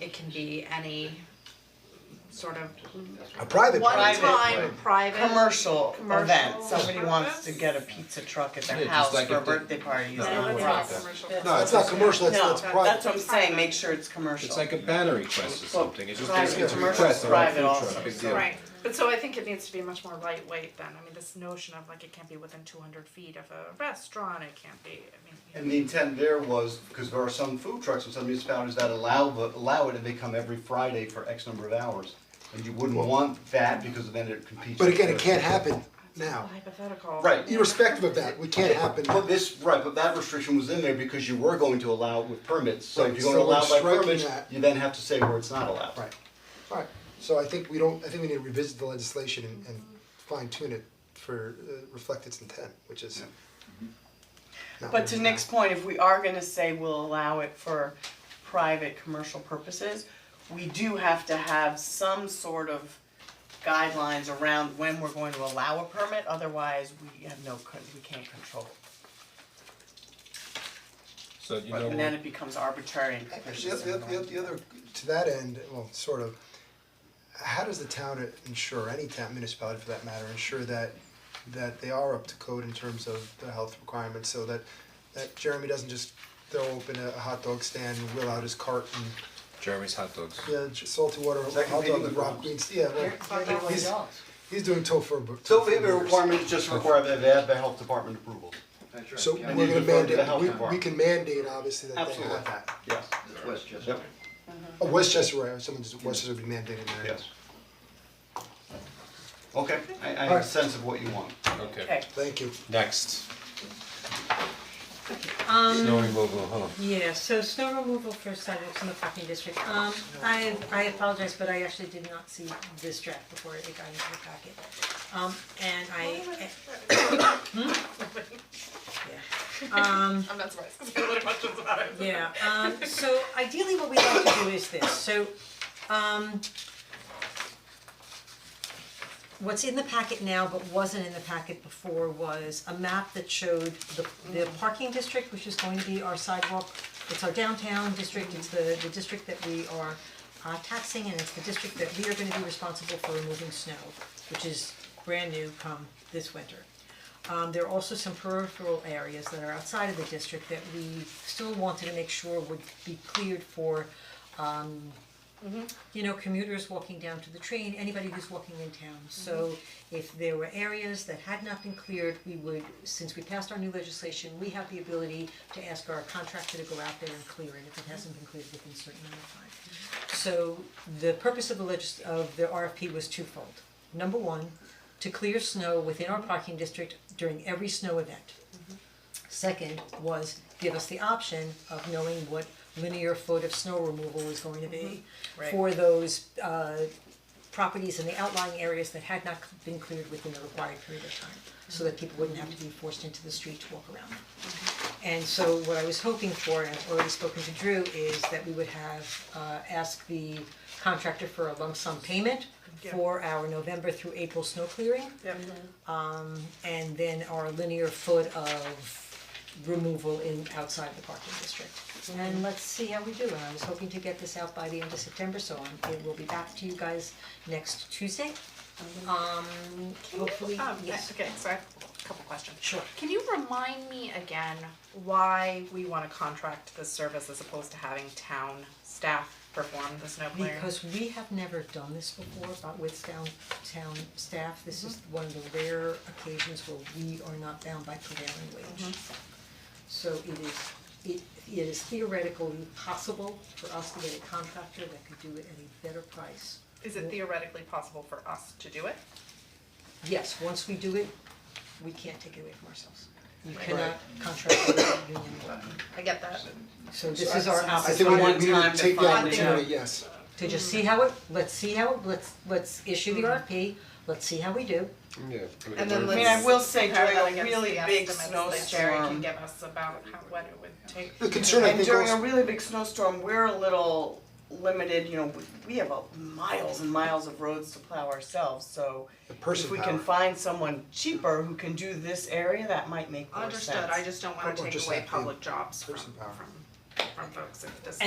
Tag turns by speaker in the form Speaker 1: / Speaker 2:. Speaker 1: it can be any sort of
Speaker 2: A private
Speaker 1: one
Speaker 2: party.
Speaker 1: time
Speaker 3: right.
Speaker 1: private.
Speaker 4: commercial
Speaker 1: Commercial
Speaker 4: event, somebody
Speaker 1: purpose?
Speaker 4: wants to get a pizza truck at
Speaker 3: Yeah,
Speaker 4: their
Speaker 3: just
Speaker 4: house
Speaker 3: like
Speaker 4: for a
Speaker 3: if they-
Speaker 4: birthday party, it's
Speaker 3: No,
Speaker 4: not a
Speaker 3: it's
Speaker 4: problem.
Speaker 3: not
Speaker 2: No, it's not commercial, it's it's
Speaker 4: No,
Speaker 2: private.
Speaker 4: that's what I'm saying, make sure it's commercial.
Speaker 3: It's like a banner request or something, it's just,
Speaker 4: Private,
Speaker 3: it's a
Speaker 4: commercial,
Speaker 3: request, not a
Speaker 4: private
Speaker 3: food
Speaker 4: also,
Speaker 3: truck, big deal.
Speaker 1: Right, but so I think it needs to be much more lightweight then, I mean, this notion of like it can't be within two hundred feet of a restaurant, it can't be, I mean.
Speaker 5: And the intent there was, because there are some food trucks in some municipalities that allow, allow it and they come every Friday for X number of hours. And you wouldn't want that because then it competes.
Speaker 2: But again, it
Speaker 5: with the-
Speaker 2: can't happen now,
Speaker 1: Hypothetical.
Speaker 5: Right.
Speaker 2: irrespective of that, we can't happen.
Speaker 5: But this, right, but that restriction was in there because you were going to allow it with permits, so
Speaker 2: Right,
Speaker 5: if you're gonna
Speaker 2: so we're
Speaker 5: allow by
Speaker 2: striking
Speaker 5: permits,
Speaker 2: that.
Speaker 5: you then have to say where it's not allowed.
Speaker 2: Right, alright, so I think we don't, I think we need to revisit the legislation and and fine tune it for, uh, reflect its intent, which is. not
Speaker 4: But
Speaker 2: what
Speaker 4: to
Speaker 2: we
Speaker 4: Nick's point, if we are gonna say we'll allow it for private commercial purposes, we do have to have some sort of guidelines around when we're going to allow a permit, otherwise we have no, con- we can't control it.
Speaker 3: So you
Speaker 4: And then
Speaker 3: know,
Speaker 4: it becomes arbitrary and capricious
Speaker 2: The, the, the, the other, to that end, well, sort of, how does the town ensure, any town municipality for that matter, ensure that that they are up to code in terms of the health requirements, so that that Jeremy doesn't just throw open a hot dog stand and wheel out his cart and,
Speaker 3: Jeremy's hot dogs.
Speaker 2: yeah, j- salty water,
Speaker 5: Is that
Speaker 2: hot
Speaker 5: competing
Speaker 2: dog with
Speaker 5: with
Speaker 2: Rob
Speaker 5: Rob's?
Speaker 2: Green's, yeah, well, yeah, he's he's doing tofu.
Speaker 5: So maybe a requirement is just require that they have the health department approval.
Speaker 2: So
Speaker 6: Yeah,
Speaker 2: we're gonna
Speaker 5: And you defer to the
Speaker 2: mandate,
Speaker 5: health
Speaker 2: we we
Speaker 5: department.
Speaker 2: can mandate obviously that they
Speaker 5: Absolutely.
Speaker 2: have that.
Speaker 5: Yes.
Speaker 6: That's Westchester.
Speaker 2: Oh, Westchester, right, someone's, Westchester would be mandating that.
Speaker 5: Yes. Okay, I, I have a
Speaker 2: Alright.
Speaker 5: sense of what you want.
Speaker 3: Okay,
Speaker 2: Thank you.
Speaker 3: next,
Speaker 7: Um,
Speaker 3: snow removal, huh?
Speaker 7: yeah, so snow removal for sidewalks in the parking district, um, I, I apologize, but I actually did not see this draft before it got into the packet. Um, and I, Hmm?
Speaker 1: I'm not surprised, cause I have a lot of questions about it.
Speaker 7: Um, yeah, um, so ideally what we like to do is this, so, um, what's in the packet now but wasn't in the packet before was a map that showed the the parking district, which is going to be our sidewalk. It's our downtown district, it's the the district that we are uh taxing and it's the district that we are gonna be responsible for removing snow, which is brand new come this winter. Um there are also some peripheral areas that are outside of the district that we still wanted to make sure would be cleared for um you know, commuters walking down to the train, anybody who's walking in town. So if there were areas that had not been cleared, we would, since we passed our new legislation, we have the ability to ask our contractor to go out there and clear it if it hasn't been cleared within a certain amount of time. So the purpose of the legis- of the RFP was twofold. Number one, to clear snow within our parking district during every snow event. Second was give us the option of knowing what linear foot of snow removal is going to be
Speaker 4: Right.
Speaker 7: for those uh properties in the outlying areas that had not been cleared within the required period of time, so that people wouldn't have to be forced into the street to walk around them. And so what I was hoping for, and I've already spoken to Drew, is that we would have uh asked the contractor for a lump sum payment
Speaker 1: Yeah.
Speaker 7: for our November through April snow clearing
Speaker 1: Yep.
Speaker 7: and then our linear foot of removal in outside the parking district. And let's see how we do, and I was hoping to get this out by the end of September, so I'm, it will be back to you guys next Tuesday. Um, hopefully,
Speaker 1: Um,
Speaker 7: yes,
Speaker 1: okay, so I have a couple questions.
Speaker 7: sure.
Speaker 1: Can you remind me again why we wanna contract this service as opposed to having town staff perform the snow clearing?
Speaker 7: Because we have never done this before, but with downtown staff, this is
Speaker 2: Mm-hmm.
Speaker 7: one of the rare occasions where we are not bound by prevailing wage.
Speaker 2: Mm-hmm.
Speaker 7: So it is, it it is theoretically possible for us to get a contractor that could do it at a better price.
Speaker 1: Is it theoretically possible for us to do it?
Speaker 7: Yes, once we do it, we can't take it away from ourselves. You cannot contract with union work.
Speaker 1: I get that.
Speaker 7: So this is our
Speaker 2: I
Speaker 7: opportunity.
Speaker 2: think we
Speaker 4: one
Speaker 2: need, we need
Speaker 4: time
Speaker 2: to
Speaker 4: to
Speaker 2: take the
Speaker 4: find
Speaker 1: it
Speaker 2: opportunity, yes.
Speaker 7: to just see how it, let's see how, it- let's, let's issue the
Speaker 2: Mm-hmm.
Speaker 7: RFP, let's see how we do.
Speaker 3: Yeah.
Speaker 1: And then
Speaker 4: I
Speaker 1: let's.
Speaker 4: mean, I will say
Speaker 1: compare
Speaker 4: during
Speaker 1: that
Speaker 4: a
Speaker 1: against
Speaker 4: really
Speaker 1: the
Speaker 4: big
Speaker 1: estimates that Jerry can
Speaker 4: snowstorm-
Speaker 1: give us about how, what it would take.
Speaker 2: The concern I
Speaker 4: And
Speaker 2: think
Speaker 4: during a
Speaker 2: also,
Speaker 4: really big snowstorm, we're a little limited, you know, we we have a- miles and miles of roads to plow ourselves, so
Speaker 2: the person
Speaker 4: if we can
Speaker 2: power.
Speaker 4: find someone cheaper who can do this area, that might make more sense.
Speaker 1: Understood, I just don't wanna
Speaker 2: Or
Speaker 1: take
Speaker 2: just
Speaker 1: away
Speaker 2: have the
Speaker 1: public jobs from,
Speaker 2: person
Speaker 1: from,
Speaker 2: power.
Speaker 1: from folks if this